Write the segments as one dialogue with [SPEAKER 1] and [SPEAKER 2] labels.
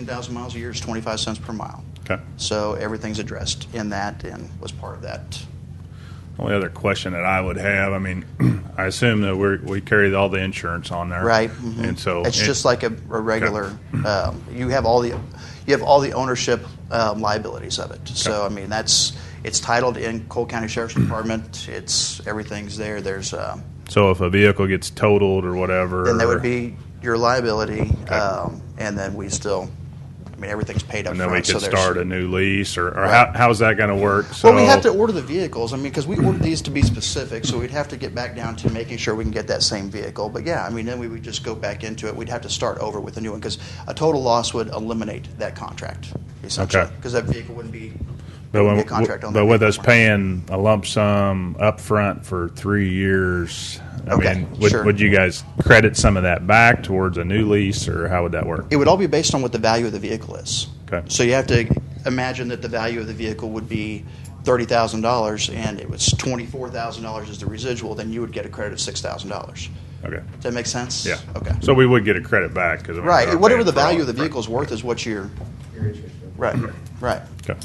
[SPEAKER 1] 2,000 miles a year is 25 cents per mile.
[SPEAKER 2] Okay.
[SPEAKER 1] So everything's addressed in that and was part of that.
[SPEAKER 2] Only other question that I would have, I mean, I assume that we we carry all the insurance on there,
[SPEAKER 1] Right. mhm.
[SPEAKER 2] And so
[SPEAKER 1] it's
[SPEAKER 2] it-
[SPEAKER 1] just like a, a regular. Um, you have all the you have all the ownership um, liabilities of it. So I mean that's it's titled in Cole County Sheriff's Department. It's everything's there. There's um,
[SPEAKER 2] So if a vehicle gets totaled or whatever,
[SPEAKER 1] then that would be your liability,
[SPEAKER 2] Okay.
[SPEAKER 1] um, and then we still. I mean everything's paid up.
[SPEAKER 2] and then we
[SPEAKER 1] front,
[SPEAKER 2] could
[SPEAKER 1] so there's-
[SPEAKER 2] start a new lease, or, or
[SPEAKER 1] Right.
[SPEAKER 2] how, how's that going to work? So
[SPEAKER 1] Well, we have to order the vehicles. I mean, because we ordered these to be specific, so we'd have to get back down to making sure we can get that same vehicle. But yeah, I mean, then we would just go back into it. We'd have to start over with a new one because a total loss would eliminate that contract essentially.
[SPEAKER 2] Okay.
[SPEAKER 1] Because that vehicle wouldn't be.
[SPEAKER 2] but,
[SPEAKER 1] wouldn't
[SPEAKER 2] when,
[SPEAKER 1] be a contract on
[SPEAKER 2] but
[SPEAKER 1] that
[SPEAKER 2] with us
[SPEAKER 1] vehicle.
[SPEAKER 2] paying a lump sum up front for three years, I
[SPEAKER 1] Okay,
[SPEAKER 2] mean, would,
[SPEAKER 1] sure.
[SPEAKER 2] would you guys credit some of that back towards a new lease, or how would that work?
[SPEAKER 1] It would all be based on what the value of the vehicle is.
[SPEAKER 2] Okay.
[SPEAKER 1] So you have to imagine that the value of the vehicle would be thirty thousand dollars, and it was twenty four thousand dollars as the residual. Then you would get a credit of six thousand dollars.
[SPEAKER 2] Okay.
[SPEAKER 1] Does that make sense?
[SPEAKER 2] Yeah.
[SPEAKER 1] Okay.
[SPEAKER 2] So we would get a credit back because
[SPEAKER 1] Right. Whatever the value of the vehicle's worth is what your. Right. Right.
[SPEAKER 2] Okay.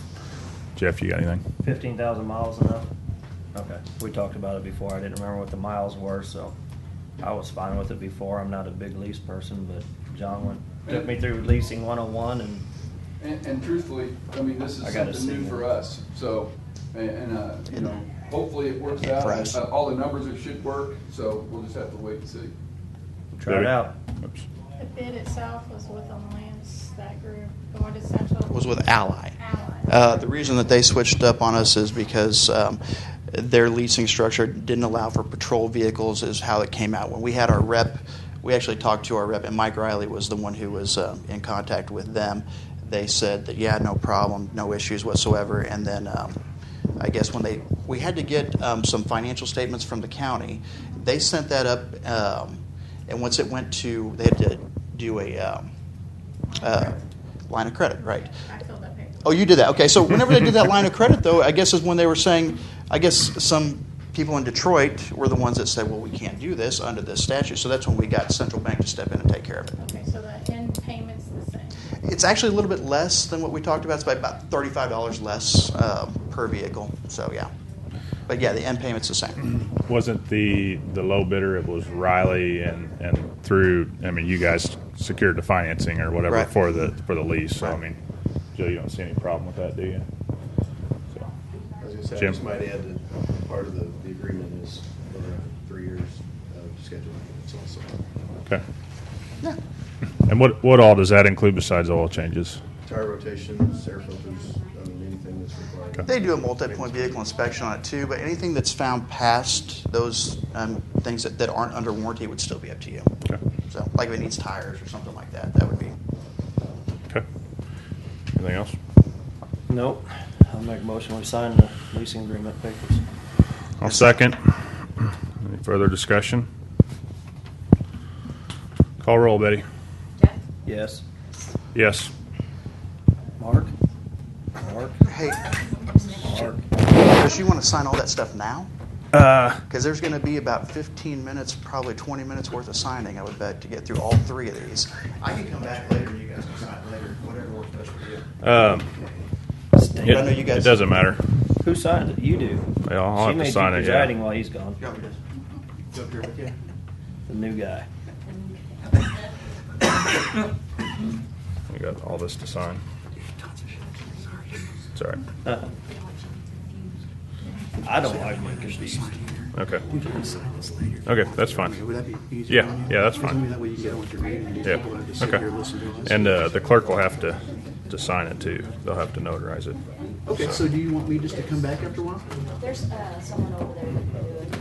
[SPEAKER 2] Jeff, you got anything?
[SPEAKER 3] Fifteen thousand miles enough? Okay, we talked about it before, I didn't remember what the miles were, so I was fine with it before, I'm not a big lease person, but John went, took me through leasing one oh one and
[SPEAKER 4] And, and truthfully, I mean, this
[SPEAKER 3] I
[SPEAKER 4] is
[SPEAKER 3] gotta
[SPEAKER 4] something
[SPEAKER 3] see
[SPEAKER 4] new for
[SPEAKER 3] it.
[SPEAKER 4] us, so, and- and, uh, you know, hopefully it works
[SPEAKER 1] Yeah,
[SPEAKER 4] out.
[SPEAKER 1] for us.
[SPEAKER 4] Uh, All the numbers it should work, so we'll just have to wait and see.
[SPEAKER 3] tried it out.
[SPEAKER 2] Oops.
[SPEAKER 5] The bid itself was with a Lance, that group, going to Central.
[SPEAKER 1] Was with Ally.
[SPEAKER 5] Allied.
[SPEAKER 1] Uh, the reason that they switched up on us is because um, their leasing structure didn't allow for patrol vehicles, is how it came out. When we had our rep, we actually talked to our rep, and Mike Riley was the one who was um, in contact with them. They said that, yeah, no problem, no issues whatsoever. And then um, I guess when they, we had to get um, some financial statements from the county. They sent that up, um, and once it went to, they had to do a um, uh, line of credit, right?
[SPEAKER 5] I filled that paper.
[SPEAKER 1] Oh, you did that. Okay, so whenever they did that line of credit, though, I guess is when they were saying, I guess some people in Detroit were the ones that said, well, we can't do this under this statute. So that's when we got central bank to step in and take care of it.
[SPEAKER 5] Okay, so the end payment's the same.
[SPEAKER 1] It's actually a little bit less than what we talked about. It's by about thirty-five dollars less um, per vehicle. So yeah, but yeah, the end payment's the same.
[SPEAKER 2] Wasn't the the low bidder? It was Riley, and and through. I mean, you guys secured the financing or whatever
[SPEAKER 1] Right.
[SPEAKER 2] for the for the lease. So I
[SPEAKER 1] Right.
[SPEAKER 2] mean, Joe, you don't see any problem with that, do you? So,
[SPEAKER 6] I was gonna say, I
[SPEAKER 2] Jim?
[SPEAKER 6] just might add that part of the, the agreement is over three years of scheduling. It's also,
[SPEAKER 2] okay.
[SPEAKER 1] Yeah.
[SPEAKER 2] And what what all does that include besides oil changes?
[SPEAKER 6] tire rotations, air filters, I mean, anything that's required.
[SPEAKER 1] They do a multi-point vehicle inspection on it too, but anything that's found past those um, things that, that aren't under warranty would still be up to you.
[SPEAKER 2] Okay.
[SPEAKER 1] So like if it needs tires or something like that, that would be
[SPEAKER 2] Okay. Anything else?
[SPEAKER 3] Nope, I'll make a motion, we sign the leasing agreement papers.
[SPEAKER 2] I'll second. Any further discussion? Call roll, Betty.
[SPEAKER 5] Jeff?
[SPEAKER 3] Yes,
[SPEAKER 2] Yes.
[SPEAKER 3] Mark? Mark?
[SPEAKER 1] Hey,
[SPEAKER 3] Mark?
[SPEAKER 1] does you want to sign all that stuff now?
[SPEAKER 2] Uh,
[SPEAKER 1] Because there's going to be about 15 minutes, probably 20 minutes worth of signing, I would bet, to get through all three of these. I can come back later, and you guys can sign later, whatever works best for you.
[SPEAKER 2] um,
[SPEAKER 3] Stan.
[SPEAKER 1] I know
[SPEAKER 2] it,
[SPEAKER 1] you guys-
[SPEAKER 2] it doesn't matter.
[SPEAKER 3] Who signed it? You do.
[SPEAKER 2] Yeah, I'll have
[SPEAKER 3] She
[SPEAKER 2] to
[SPEAKER 3] made you
[SPEAKER 2] sign it, yeah.
[SPEAKER 3] presiding while he's gone,
[SPEAKER 1] You want me to go up here with you?
[SPEAKER 3] the new guy.
[SPEAKER 2] We got all this to sign. It's all right.
[SPEAKER 3] Uh, I don't like making these.
[SPEAKER 2] Okay. Okay, that's fine. Yeah, yeah, that's fine.
[SPEAKER 6] That way you get what you're reading. and you
[SPEAKER 2] Yeah,
[SPEAKER 6] don't have to sit
[SPEAKER 2] okay.
[SPEAKER 6] here and listen to us.
[SPEAKER 2] And uh, the clerk will have to, to sign it too. They'll have to notarize it.
[SPEAKER 6] Okay, so do you want me just to come back after a while?
[SPEAKER 7] There's uh, someone over there that can do it.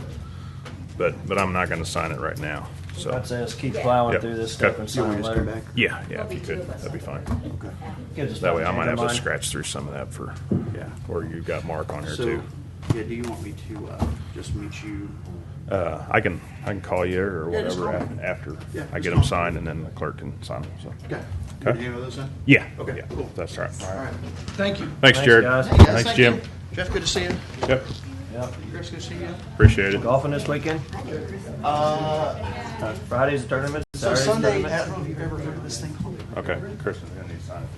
[SPEAKER 2] But, but I'm not gonna sign it right now, so.
[SPEAKER 3] I'd say let's keep plowing
[SPEAKER 2] Yeah.
[SPEAKER 3] through this
[SPEAKER 2] Okay.
[SPEAKER 3] stuff and
[SPEAKER 6] You
[SPEAKER 3] sign
[SPEAKER 6] want me to just come
[SPEAKER 3] later.
[SPEAKER 6] back?
[SPEAKER 2] Yeah, yeah,
[SPEAKER 7] There'll
[SPEAKER 2] if you
[SPEAKER 7] be two
[SPEAKER 2] could,
[SPEAKER 7] of us
[SPEAKER 2] that'd be fine.
[SPEAKER 7] up
[SPEAKER 3] Gives us
[SPEAKER 2] That way I
[SPEAKER 3] time
[SPEAKER 2] might
[SPEAKER 3] to
[SPEAKER 2] have to
[SPEAKER 3] mine.
[SPEAKER 2] scratch through some of that for, yeah, or you've got Mark on here
[SPEAKER 1] So,
[SPEAKER 2] too.
[SPEAKER 1] yeah, do you want me to uh, just meet you?
[SPEAKER 2] Uh, I can, I can call you or
[SPEAKER 1] Yeah, just
[SPEAKER 2] whatever
[SPEAKER 1] call
[SPEAKER 2] af- after
[SPEAKER 1] Yeah,
[SPEAKER 2] I
[SPEAKER 1] just
[SPEAKER 2] get
[SPEAKER 1] call.
[SPEAKER 2] them signed and then the clerk can sign them, so.
[SPEAKER 1] Okay. You
[SPEAKER 2] Okay.
[SPEAKER 1] want to handle those then?
[SPEAKER 2] Yeah,
[SPEAKER 1] Okay,
[SPEAKER 2] yeah,
[SPEAKER 1] cool.
[SPEAKER 2] that's all right.
[SPEAKER 1] All right. Thank you.
[SPEAKER 2] Thanks,
[SPEAKER 3] Thanks,
[SPEAKER 2] Jared.
[SPEAKER 3] guys.
[SPEAKER 1] Hey, guys,
[SPEAKER 2] Thanks,
[SPEAKER 1] thank
[SPEAKER 2] Jim.
[SPEAKER 1] you. Jeff, good to see you.
[SPEAKER 2] Yep,
[SPEAKER 3] Yep.
[SPEAKER 1] Chris, good to see you.
[SPEAKER 2] appreciate it.
[SPEAKER 3] Golfing this weekend? Uh, Friday's the tournament.
[SPEAKER 1] So
[SPEAKER 3] Saturday's the
[SPEAKER 1] Sunday,
[SPEAKER 3] tournament.
[SPEAKER 1] I don't know if you've ever heard of this thing called
[SPEAKER 2] Okay, Chris. yeah.